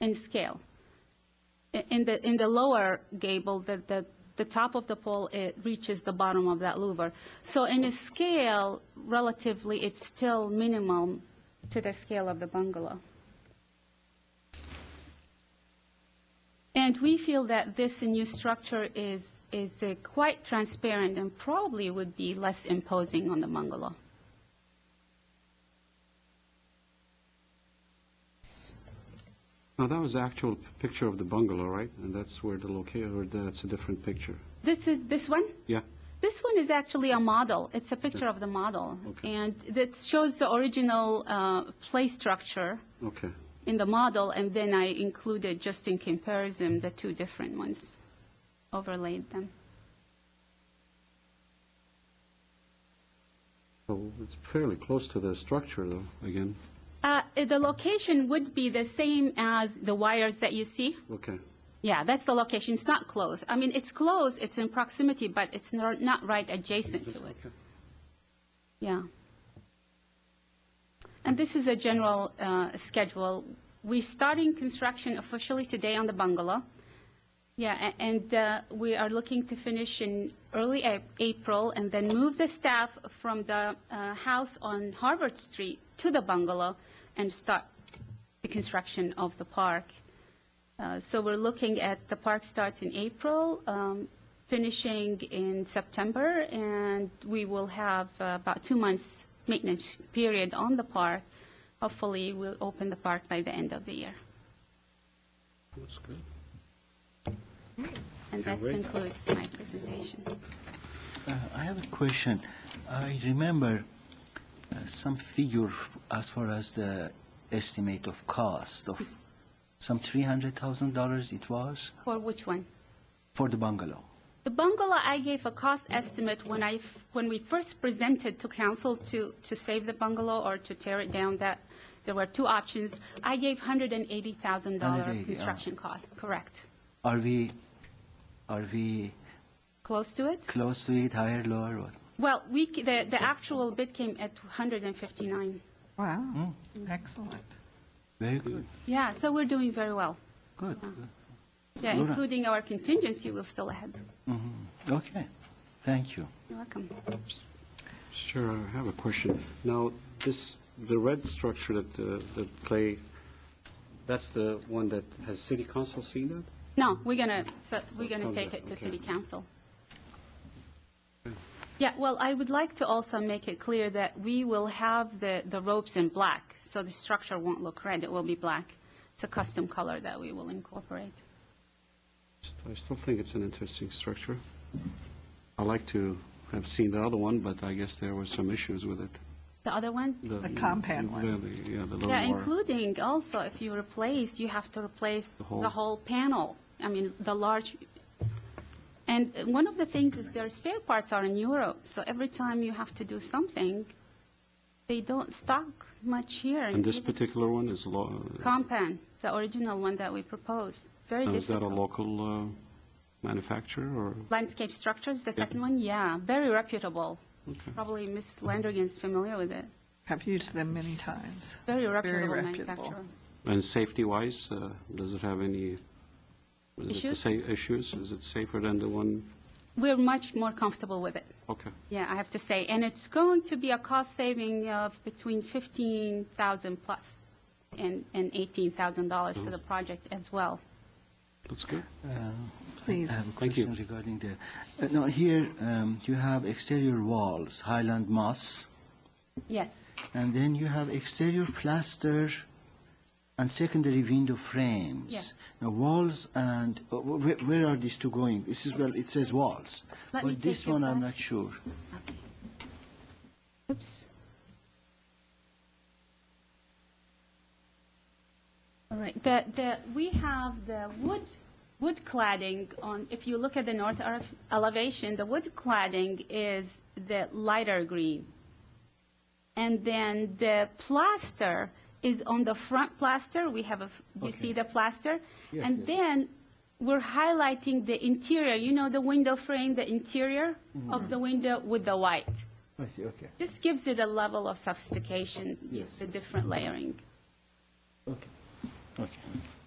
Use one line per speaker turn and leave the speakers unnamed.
in scale. I- In the, in the lower gable, the, the, the top of the pole, it reaches the bottom of that louver. So in a scale, relatively, it's still minimal to the scale of the bungalow. And we feel that this new structure is, is uh, quite transparent and probably would be less imposing on the bungalow.
Now, that was the actual p- picture of the bungalow, right? And that's where the location, or that's a different picture?
This is, this one?
Yeah?
This one is actually a model. It's a picture of the model.
Okay.
And that shows the original uh, play structure
Okay.
in the model, and then I included, just in comparison, the two different ones, overlaid them.
So it's fairly close to the structure, though, again.
Uh, The location would be the same as the wires that you see.
Okay.
Yeah, that's the location. It's not close. I mean, it's close, it's in proximity, but it's nor- not right adjacent to it.
Okay.
Yeah. And this is a general uh, schedule. We're starting construction officially today on the bungalow. Yeah, a- and uh, we are looking to finish in early A- April and then move the staff from the uh, house on Harvard Street to the bungalow and start the construction of the park. Uh, So we're looking at the park starts in April, um, finishing in September, and we will have uh, about two months maintenance period on the park. Hopefully, we'll open the park by the end of the year.
That's good.
And that
Can't wait.
concludes my presentation.
Uh, I have a question. I remember uh, some figure as far as the estimate of cost of some $300,000 it was
For which one?
for the bungalow.
The bungalow, I gave a cost estimate when I, f- when we first presented to council to, to save the bungalow or to tear it down, that, there were two options. I gave $180,000
$180,000,
construction cost, correct.
Are we are we
Close to it?
close to it, higher, lower? What?
Well, we, c- the, the actual bid came at 159.
Wow, excellent.
Very good.
Yeah, so we're doing very well.
Good.
Yeah,
Laura.
including our contingency, we're still ahead.
hmm Okay. Thank you.
You're welcome.
Sure, I have a question. Now, this, the red structure that, uh, that Clay, that's the one that, has city council seen that?
No, we're gonna, so, we're gonna
Okay,
take it to
okay.
city council.
Okay.
Yeah, well, I would like to also make it clear that we will have the, the ropes in black, so the structure won't look red, it will be black. It's a custom color that we will incorporate.
I still think it's an interesting structure. I like to have seen the other one, but I guess there were some issues with it.
The other one?
The compound one.
the- the- Yeah, the little
Yeah,
more-
including also if you replace, you have to replace
The whole-
the whole panel, I mean, the large. And one of the things is their spare parts are in Europe, so every time you have to do something, they don't stock much here.
And this
even
particular one is lo,
Compan, the original one that we proposed, very
now, Oh, is that a
difficult.
local uh, manufacturer or?
Landscape Structures, the second one, yeah, very reputable.
Okay.
Probably Ms. Landrigan's familiar with it.
Have used them many times.
Very reputable
reputable.
manufacturer.
And safety-wise, uh, does it have any? is it the
Issues?
sa- Issues? Is it safer than the one?
We're much more comfortable with it.
Okay,
Yeah, I have to say, and it's going to be a cost saving of between 15,000 plus and and $18,000 to the project as well.
that's good.
Uh,
Please.
I have a
Thank you.
question regarding the... Uh, no, here um, you have exterior walls, Highland moss.
Yes.
And then you have exterior plaster and secondary window frames.
Yeah.
Now walls and, uh, wh- where, where are these two going? This is, well, it says walls.
Let me
But this
take it
one, I'm
back.
not sure.
Okay. Oops. All right, the, the, we have the wood, wood cladding on, if you look at the north arch elevation, the wood cladding is the lighter green. And then the plaster is on the front plaster, we have a, f- you see the plaster?
Yes,
And
yes.
then we're highlighting the interior, you know, the window frame, the interior
Mm-hmm.
of the window with the white.
I see, okay,
This gives it a level of sophistication,
Yes.
the different layering.
okay, okay.